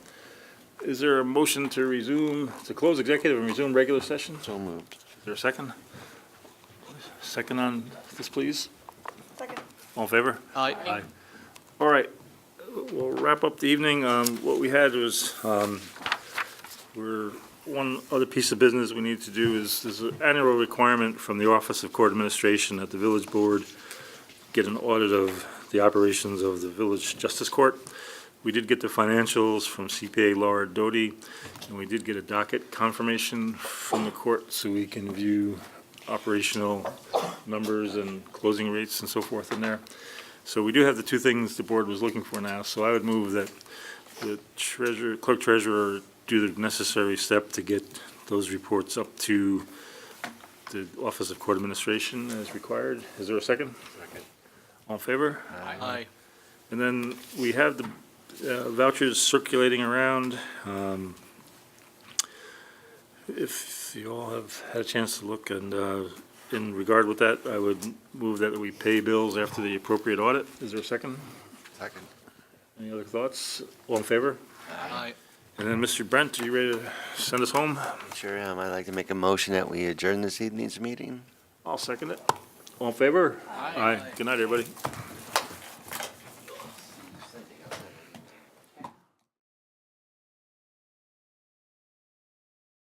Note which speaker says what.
Speaker 1: Is there a motion to resume, to close executive and resume regular session?
Speaker 2: So moved.
Speaker 1: Is there a second? Second on this, please?
Speaker 3: Second.
Speaker 1: All in favor?
Speaker 4: Aye.
Speaker 1: All right, we'll wrap up the evening. Um, What we had was, um, we're, one other piece of business we need to do is, there's an annual requirement from the Office of Court Administration that the village board get an audit of the operations of the village justice court. We did get the financials from CPA Laura Doty, and we did get a docket confirmation from the court, so we can view operational numbers and closing rates and so forth in there. So we do have the two things the board was looking for now, so I would move that the treasurer, clerk treasurer do the necessary step to get those reports up to the Office of Court Administration as required. Is there a second?
Speaker 2: Second.
Speaker 1: All in favor?
Speaker 4: Aye.
Speaker 1: And then we have the uh, vouchers circulating around. Um, If you all have had a chance to look and uh, in regard with that, I would move that we pay bills after the appropriate audit. Is there a second?
Speaker 2: Second.
Speaker 1: Any other thoughts? All in favor?
Speaker 4: Aye.
Speaker 1: And then Mr. Brent, are you ready to send us home?
Speaker 2: Sure am. I'd like to make a motion that we adjourn this evening's meeting.
Speaker 1: I'll second it. All in favor? Aye. Good night, everybody.